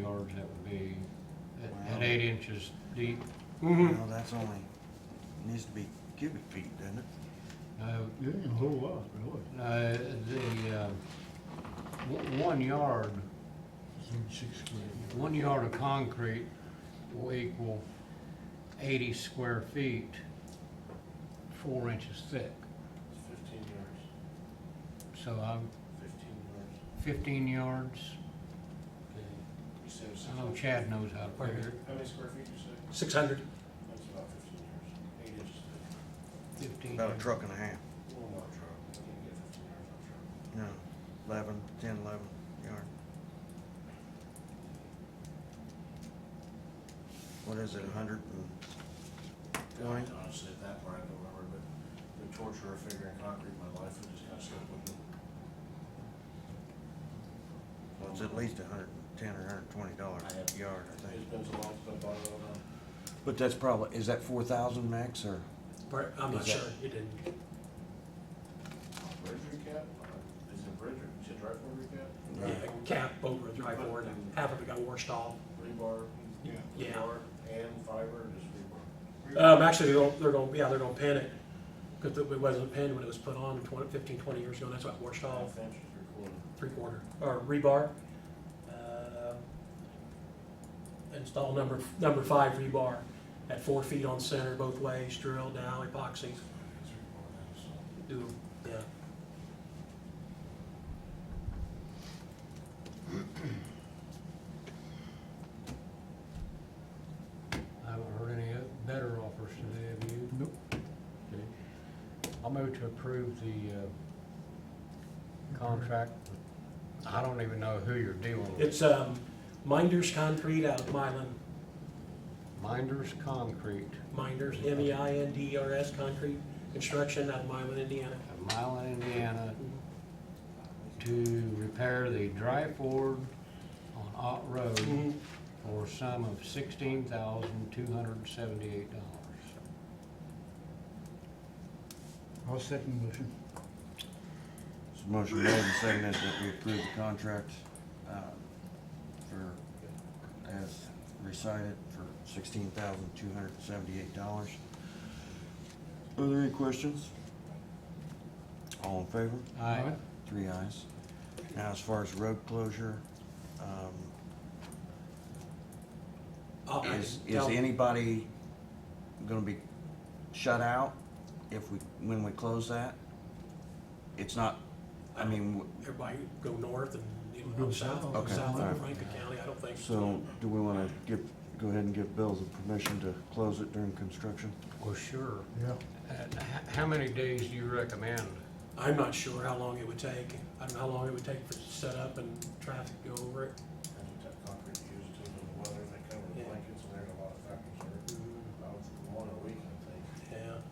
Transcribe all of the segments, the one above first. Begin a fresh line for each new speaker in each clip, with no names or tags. boards that would be at- at eight inches deep.
You know, that's only, needs to be cubic feet, doesn't it?
No,
It ain't a whole lot, really.
no, the, um, o- one yard,
Six square.
one yard of concrete will equal eighty square feet, four inches thick.
Fifteen yards,
So I'm
fifteen yards.
fifteen yards.
You said six.
I know Chad knows how to figure
How many square feet you say?
Six hundred.
That's about fifteen yards, eight inches. thick.
it, fifteen.
About a truck and a half,
Well, not a truck, I can't get fifteen yards on a truck.
you know, eleven, ten, eleven yard. What is it, a hundred and, Twenty?
Honestly, at that part, I don't remember, but the torture of figuring concrete in my life, it just kind of stuck with me.
well, it's at least a hundred and ten or a hundred and twenty dollars
I have-
a yard, I
It's
think.
been so long since I bought it, I don't know.
But that's probably, is that four thousand max or?
I'm
Is
not
that-
sure. It didn't.
Bridge recap? Is it bridge, or- is it drive for recap?
Yeah, cap over the drive board. Half of it got washed off.
Rebar?
Yeah.
Rebar and fiber, or just rebar?
Uh,
Um, actually, they're gonna, they're gonna, yeah, they're gonna pin it. Cause it wasn't pinned when it was put on 20 15, 20 years ago. and That's why it washed off.
Half inch is recorded.
Three quarter, or rebar. Uh, Install number, number five rebar at four feet on center both ways, drilled down, epoxy,
It's recorded, so.
do, yeah.
I haven't heard any better offers today, have you?
Nope.
Okay. I'll move to approve the, uh, contract. I don't even know who you're dealing with.
It's, um, Minders Concrete out of Milan.
Minders Concrete,
Minders, M-E-I-N-D-E-R-S, E Concrete Construction out of Milan, Indiana.
of Milan, Indiana, to repair the dry ford on Ott
Mm-hmm.
Mm-hmm.
Road for a sum of sixteen thousand, two hundred and seventy-eight dollars.
I'll second motion.
It's a motion made and seconded that we approve the contract, uh, for, as recited, for sixteen thousand two hundred and seventy-eight dollars. Are there any questions? All in favor?
Aye.
Three ayes. Now, as far as road closure, um,
Uh, I
is,
can
is
tell-
anybody gonna be shut out if we, when we close that? It's not, I mean, w-
Everybody go north and, you know,
Go
go south,
south.
go
Okay,
south
all
of
right.
Rankin County, I don't think.
So, do we want to give, go ahead and give Bill the permission to close it during construction?
Well, sure.
Yeah.
And h- How many days do you recommend?
I'm not sure how long it would take. I don't know how long it would take for setup and traffic to go over it.
And you took concrete used to the weather, they covered
Yeah.
blankets, and there's a lot of factors there. About one a week, I think.
Mm,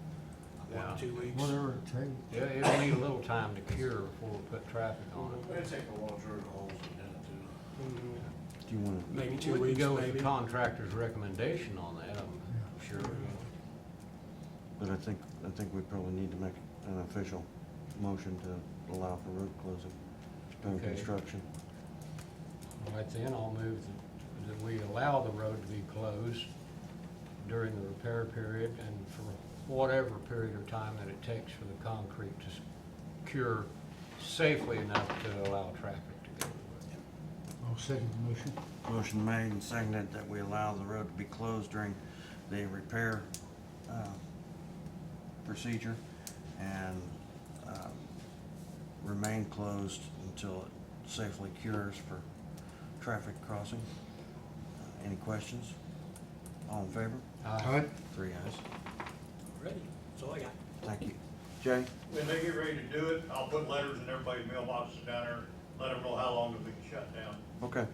Yeah,
Yeah.
one, two weeks.
Whatever it takes.
Yeah, it'll need a little time to cure before we put traffic on it.
It'd take a while to drill the holes and then to,
Mhm.
Do you want to,
Maybe two
We
weeks,
could go with the
maybe.
contractor's recommendation on that, I'm sure.
but I think, I think we probably need to make an official motion to allow for road closing during
Okay.
construction.
All right, then, I'll move that- that we allow the road to be closed during the repair period and for whatever period of time that it takes for the concrete to s- cure safely enough to allow traffic to go.
I'll second the motion.
Motion made and seconded that we allow the road to be closed during the repair, uh, procedure and, um, remain closed until it safely cures for traffic crossing. Uh, Any questions? All in favor?
Aye.
Three ayes.
Ready, that's all I got.
Thank you. Jay?
When they get ready to do it, I'll put letters in everybody's mailboxes down there, let them know how long it's been shut down.
Okay,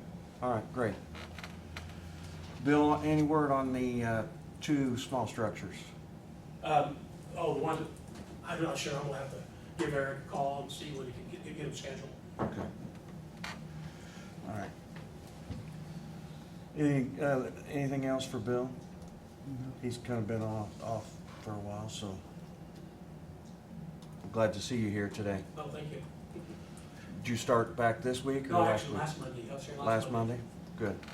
all right, great. Bill, any word on the uh, two small structures?
Um, oh, the one, that- I'm not sure, I'm gonna have to give Eric a call and see when he can get, get him scheduled.
Okay. All right. Any, uh, anything else for Bill? He's kind of been off, off for a while, so. Glad to see you here today.
Oh, thank you.
Did you start back this week or
No,
last
actually,
week?
last Monday, I was here last Monday.
Last Monday? Good.